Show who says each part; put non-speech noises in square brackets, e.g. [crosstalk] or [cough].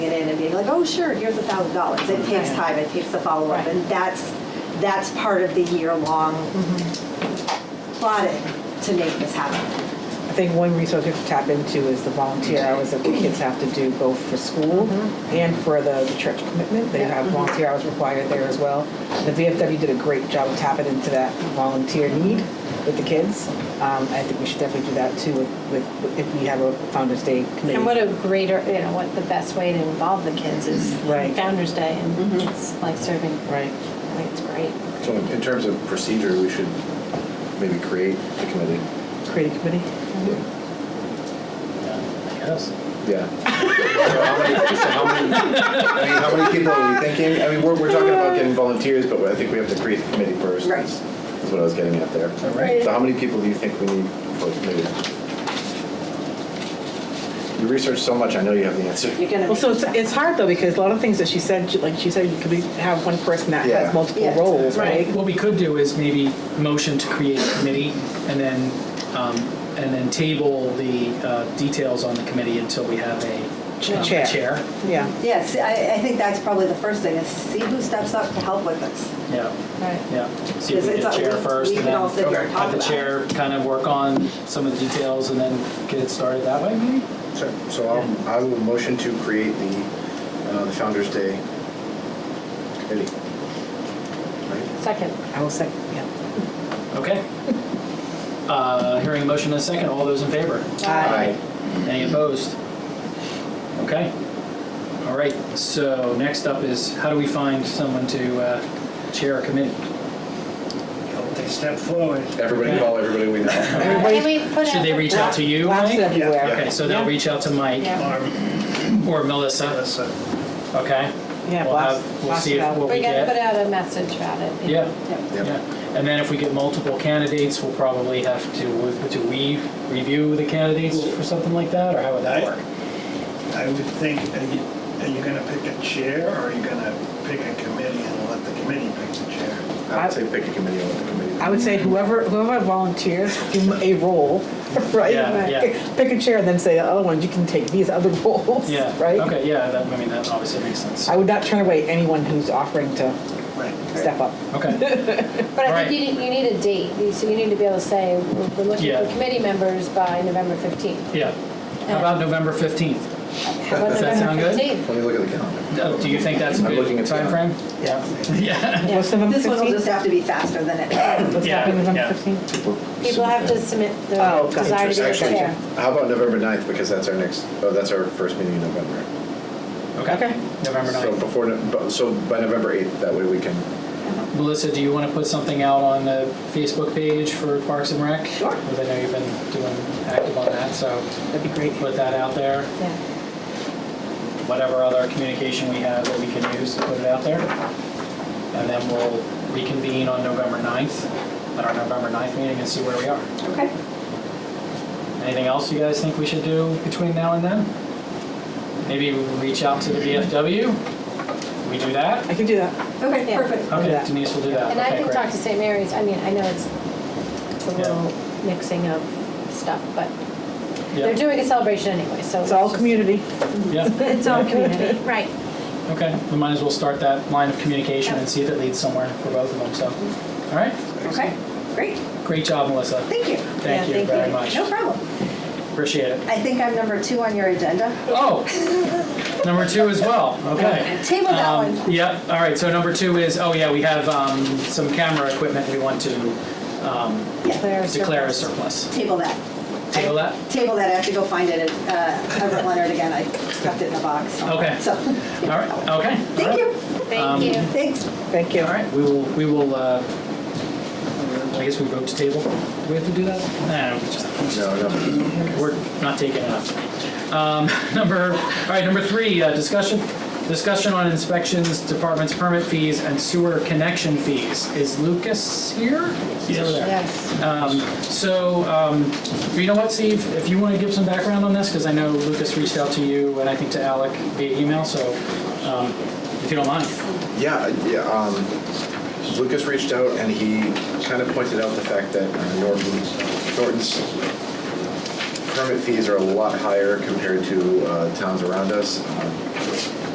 Speaker 1: You're like, oh, sure, here's a thousand dollars. It takes
Speaker 2: Right.
Speaker 1: time, it takes the follow-up,
Speaker 2: Right.
Speaker 1: and that's, that's part of the year-long plotting to make this happen.
Speaker 2: I think one resource we have to tap into is the volunteer hours that the kids have to do both for school and for the the church commitment. They have volunteer hours required there as well. The VFW did a great job of tapping into that volunteer need with the kids. Um, I think we should definitely do that too with- with, if we have a Founder's Day committee.
Speaker 3: And what a greater, you know, what the best way to involve the kids is
Speaker 2: Right.
Speaker 3: Founder's Day and it's like serving.
Speaker 2: Right.
Speaker 3: I think it's great.
Speaker 4: So in in terms of procedure, we should maybe create the committee.
Speaker 2: Create a committee?
Speaker 5: I guess.
Speaker 4: Yeah. So how many, so how many, I mean, how many people are we thinking? I mean, we're, we're talking about getting volunteers, but I think we have to create the committee first.
Speaker 1: Right.
Speaker 4: is- Is what I was getting at there.
Speaker 5: All right.
Speaker 4: So how many people do you think we need for the committee? You research so much, I know you have the answer.
Speaker 1: You're gonna.
Speaker 2: Well, so
Speaker 1: make-
Speaker 2: it's, it's hard though, because a lot of things that she said, she- like she said, you could be- have one person that
Speaker 4: Yeah.
Speaker 2: has multiple
Speaker 1: Yeah.
Speaker 2: roles, right?
Speaker 5: What we could do is maybe motion to create a committee and then, um, and then table the uh, details on the committee until we have a um,
Speaker 2: chair.
Speaker 5: Chair,
Speaker 2: Yeah,
Speaker 1: Yes, I, I think that's probably the first thing, is see who steps up to help with this.
Speaker 5: yeah.
Speaker 3: Right.
Speaker 5: Yeah, see if we
Speaker 1: It's-
Speaker 5: get
Speaker 1: it's-
Speaker 5: chair
Speaker 1: we-
Speaker 5: first,
Speaker 1: we
Speaker 5: and
Speaker 1: can
Speaker 5: then
Speaker 1: all sit here and talk
Speaker 5: have the
Speaker 1: about
Speaker 5: chair kind of work on some of the details, and then get it started that way, maybe?
Speaker 4: Sure. So I'll, I will motion to create the, uh, the Founder's Day committee. Right?
Speaker 3: Second.
Speaker 2: I will say, yeah.
Speaker 5: Okay. [laughs] Uh, Hearing a motion in a second, all those in favor?
Speaker 2: Aye.
Speaker 5: Any opposed? Okay. All right, so next up is, how do we find someone to uh, chair a committee?
Speaker 6: Hope they step forward.
Speaker 4: Everybody call everybody we know.
Speaker 3: Can we put
Speaker 5: Should
Speaker 3: out
Speaker 5: they
Speaker 3: the-
Speaker 5: reach out to you,
Speaker 2: Lots
Speaker 5: Mike?
Speaker 2: everywhere.
Speaker 5: Okay, so they'll
Speaker 2: Yeah.
Speaker 5: reach out to Mike
Speaker 3: Yeah.
Speaker 6: Or
Speaker 5: or Melissa,
Speaker 6: Melissa.
Speaker 5: okay?
Speaker 2: Yeah,
Speaker 5: We'll
Speaker 2: blast-
Speaker 5: have- We'll
Speaker 2: blast
Speaker 5: see
Speaker 2: it
Speaker 5: if
Speaker 2: out.
Speaker 5: what we
Speaker 3: We gotta put
Speaker 5: get.
Speaker 3: out a message about it.
Speaker 5: Yeah.
Speaker 4: Yep.
Speaker 5: Yeah, and then if we get multiple candidates, we'll probably have to, do we review the candidates for something like that, or how would that
Speaker 6: I-
Speaker 5: work?
Speaker 6: I would think, are you, are you gonna pick a chair or are you gonna pick a committee and let the committee pick the chair?
Speaker 4: I would say pick a committee, let the committee.
Speaker 2: I would say whoever whoever volunteers, give them a role, [laughs] right?
Speaker 5: Yeah, yeah.
Speaker 2: Pick a chair and then say the other ones, you can take these other [laughs] roles,
Speaker 5: Yeah,
Speaker 2: right?
Speaker 5: okay, yeah, that, I mean, that obviously makes sense.
Speaker 2: I would not turn away anyone who's offering to
Speaker 6: Right.
Speaker 2: step up.
Speaker 5: Okay,
Speaker 3: But I
Speaker 5: Right.
Speaker 3: think you need, you need a date, You- so you need to be able to say, we're we're looking
Speaker 5: Yeah.
Speaker 3: for committee members by November 15th.
Speaker 5: yeah. How about November 15th?
Speaker 3: How about
Speaker 5: Does that sound
Speaker 3: November
Speaker 5: good?
Speaker 3: 15th?
Speaker 4: Let me look at the calendar.
Speaker 5: Uh, Do you think that's a
Speaker 4: I'm looking
Speaker 5: good
Speaker 4: at the
Speaker 5: timeframe?
Speaker 2: Yeah.
Speaker 5: [laughs] Yeah.
Speaker 1: Yeah.
Speaker 2: What's the number
Speaker 1: This one will
Speaker 2: 15?
Speaker 1: just have to be faster than
Speaker 2: [coughs]
Speaker 1: it.
Speaker 2: What's
Speaker 5: Yeah,
Speaker 2: happening November
Speaker 5: yeah.
Speaker 2: 15th?
Speaker 3: People have to submit their
Speaker 2: Oh, okay.
Speaker 3: desire to be a
Speaker 4: Actually,
Speaker 3: chair.
Speaker 4: how about November 9th, because that's our next, oh, that's our first meeting in November.
Speaker 5: Okay, November
Speaker 4: So
Speaker 5: 9th.
Speaker 4: before, no- but- so by November 8th, that way we can,
Speaker 5: Melissa, do you want to put something out on the Facebook page for Parks and Rec?
Speaker 1: Sure.
Speaker 5: Because I know you've been doing active on that, so
Speaker 2: That'd be great.
Speaker 5: put that out there.
Speaker 3: Yeah.
Speaker 5: whatever other communication we have that we can use to put it out there. And then we'll reconvene on November 9th, at our November 9th meeting and see where we are.
Speaker 1: Okay.
Speaker 5: Anything else you guys think we should do between now and then? Maybe we reach out to the VFW? We do that?
Speaker 2: I can do that.
Speaker 1: Okay,
Speaker 3: Yeah.
Speaker 1: perfect.
Speaker 2: do
Speaker 5: Okay,
Speaker 2: that.
Speaker 5: Denise will do that.
Speaker 3: And I
Speaker 5: Okay,
Speaker 3: can
Speaker 5: great.
Speaker 3: talk to St. Mary's, I mean, I know it's it's a
Speaker 5: Yeah.
Speaker 3: little mixing of stuff, but they're
Speaker 5: Yeah,
Speaker 3: doing a celebration anyway, so.
Speaker 2: It's all
Speaker 3: just-
Speaker 2: community.
Speaker 1: [laughs]
Speaker 5: Yeah,
Speaker 3: It's all community, right.
Speaker 5: okay. We might as well start that line of communication and see if it leads somewhere for both of them, so. All right,
Speaker 1: Okay, great.
Speaker 5: great job, Melissa.
Speaker 1: Thank you.
Speaker 5: Thank you very much.
Speaker 1: No problem.
Speaker 5: Appreciate it.
Speaker 1: I think I'm number two on your agenda.
Speaker 5: Oh, number two as well, okay.
Speaker 1: Table that
Speaker 5: Um,
Speaker 1: one.
Speaker 5: Yep, all right, so number two is, oh yeah, we have um, some camera equipment we want to um,
Speaker 1: Yeah,
Speaker 5: declare as surplus.
Speaker 1: Table that.
Speaker 5: Table that?
Speaker 1: Table that. I have to go find it at uh, Everett Leonard again. I left it in a box.
Speaker 5: Okay.
Speaker 1: So,
Speaker 5: All right, okay.
Speaker 1: thank you.
Speaker 5: Um,
Speaker 3: Thank you.
Speaker 1: Thanks.
Speaker 2: Thank you.
Speaker 5: All right, we will, we will, uh, I guess we vote to table. Do we have to do that? Nah, we just-
Speaker 4: no, no.
Speaker 5: we're not taking it up. Um, [laughs] Number, all right, number three, uh, discussion, discussion on inspections, departments, permit fees, and sewer connection fees. Is Lucas here? He's over there.
Speaker 3: Yes.
Speaker 5: Um, So, um, you know what, Steve, if you want to give some background on this, because I know Lucas reached out to you and I think to Alec via email, so um, if you don't mind.
Speaker 4: Yeah, yeah, um, Lucas reached out and he kind of pointed out the fact that uh, Norton's, Norton's permit fees are a lot higher compared to uh, towns around us. Um,